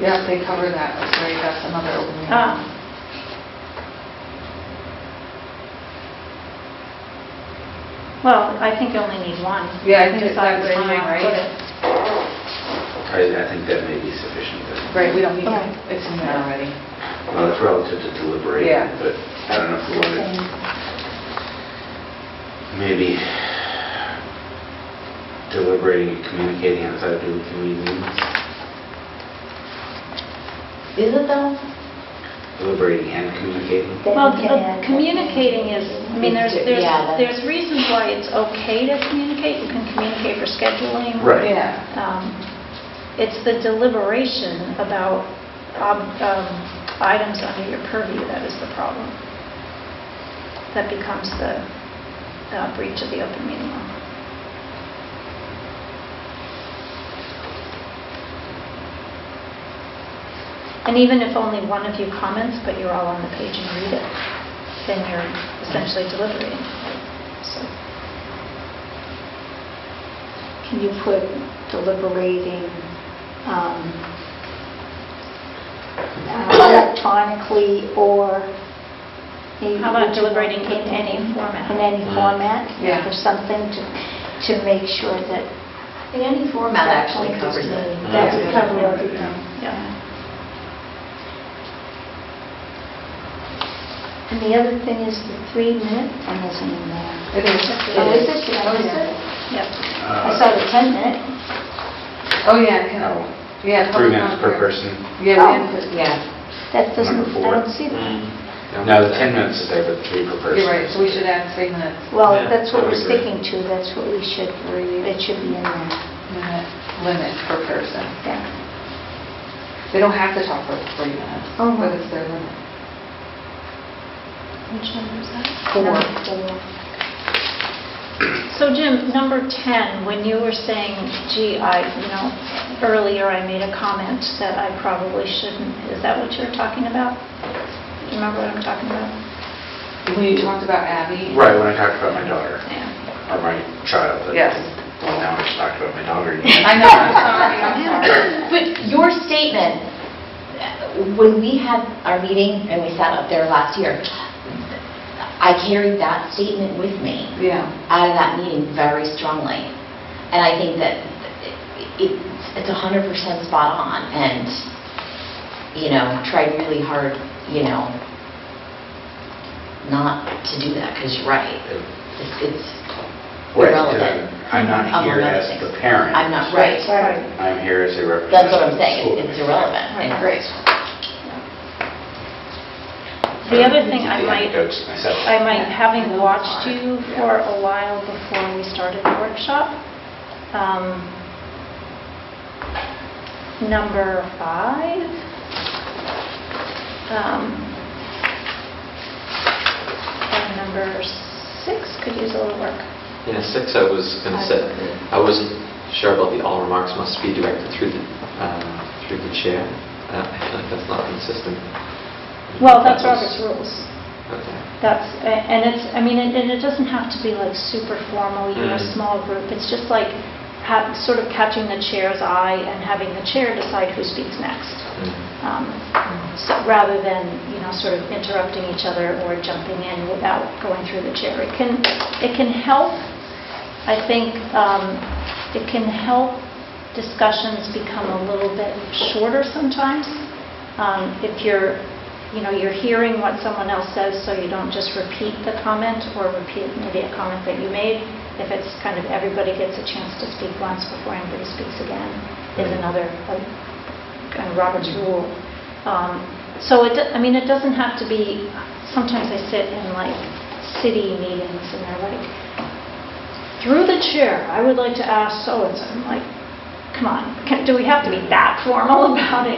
Yeah, they cover that, that's right, that's another open meeting. Ah. Well, I think you only need one. Yeah, I think it's Decide that where you timing, wanna right? put it. I I think that may be sufficient. but- Right, we don't need, Okay. it's in there already. Well, it's relative to Yeah. deliberating, but I don't know if we want to, maybe deliberating and communicating outside of the committee meetings, Is it though? deliberating and communicating. Then Well, we can the- add- communicating is, I mean, there's, It's- there's yeah, that- there's reasons why it's okay to communicate. You can communicate for scheduling. Right. Yeah, Um, It's the deliberation about ob- um, items under your purview that is the problem. That becomes the uh, breach of the open meeting law. And even if only one of you comments, but you're all on the page and read it, then you're essentially deliberating. So, Can you put deliberating um, uh, electronically or? a- How about deliberating in any format? In any format? Yeah. Or something to, to make sure that. In any format actually covers it. That Yeah. would cover everything. yeah. And the other thing is the three-minute thing isn't in there. it is. Oh, is it? Did I miss it? Yep. I saw the 10-minute. Oh, yeah, it can, Oh, yeah. Three public minutes per comment. person. Yeah, Oh. we had to- Yeah. That doesn't, Number I four. don't see that. Uh, No, the 10 minutes is there, but three per person. you're right, so we should add three minutes, Well, Yeah, that's what I would we're agree. sticking to, that's what we should, it should be in there. minute limit per person. Yeah. They don't have to talk for three minutes, Oh. but it's their limit. Which number is that? Four. Number four. So Jim, number 10, when you were saying, gee, I, you know, earlier I made a comment that I probably shouldn't, is that what you were talking about? Do you remember what I'm talking about? We talked about Abby. Right, when I talked about my daughter, Yeah. or my child. but- Yes. Well, now I just talked about my daughter. I know, I'm sorry, I'm sorry. But your statement, uh, when we had our meeting and we sat up there last year, I carried that statement with me Yeah. out of that meeting very strongly. And I think that it- it's 100% spot on and, you know, tried really hard, you know, not to do that because you're right. It's- It's Right, 'cause irrelevant. I'm not among here other as things. the parent. I'm not, right. Right. I'm here as a representative. That's what of I'm the school saying, it's committee. irrelevant. and Right. The other thing I The might- anecdotes myself. I might, having watched you for a while before we started the workshop, um, number five, um, and number six could use a little work. Yeah, six, I was going to say, I wasn't sure about the all remarks must be directed through the, um, through the chair. Uh, I feel like that's not consistent. Well, that's That was- Robert's rules. Okay. That's, a- and it's, I mean, and and it doesn't have to be like super formal, you're a Mm. small group, it's just like ha- sort of catching the chair's eye and having the chair decide who speaks next. Mm. Um, So, rather than, you know, sort of interrupting each other or jumping in without going through the chair. It can, it can help, I think, um, it can help discussions become a little bit shorter sometimes. Um, If you're, you know, you're hearing what someone else says, so you don't just repeat the comment or repeat maybe a comment that you made. If it's kind of everybody gets a chance to speak once before anybody speaks again, is another uh, kind of Robert's rule. Um, So it, do- I mean, it doesn't have to be, sometimes I sit in like city meetings and they're like, through the chair, I would like to ask so-and-so. I'm like, come on, can- do we have to be that formal about it?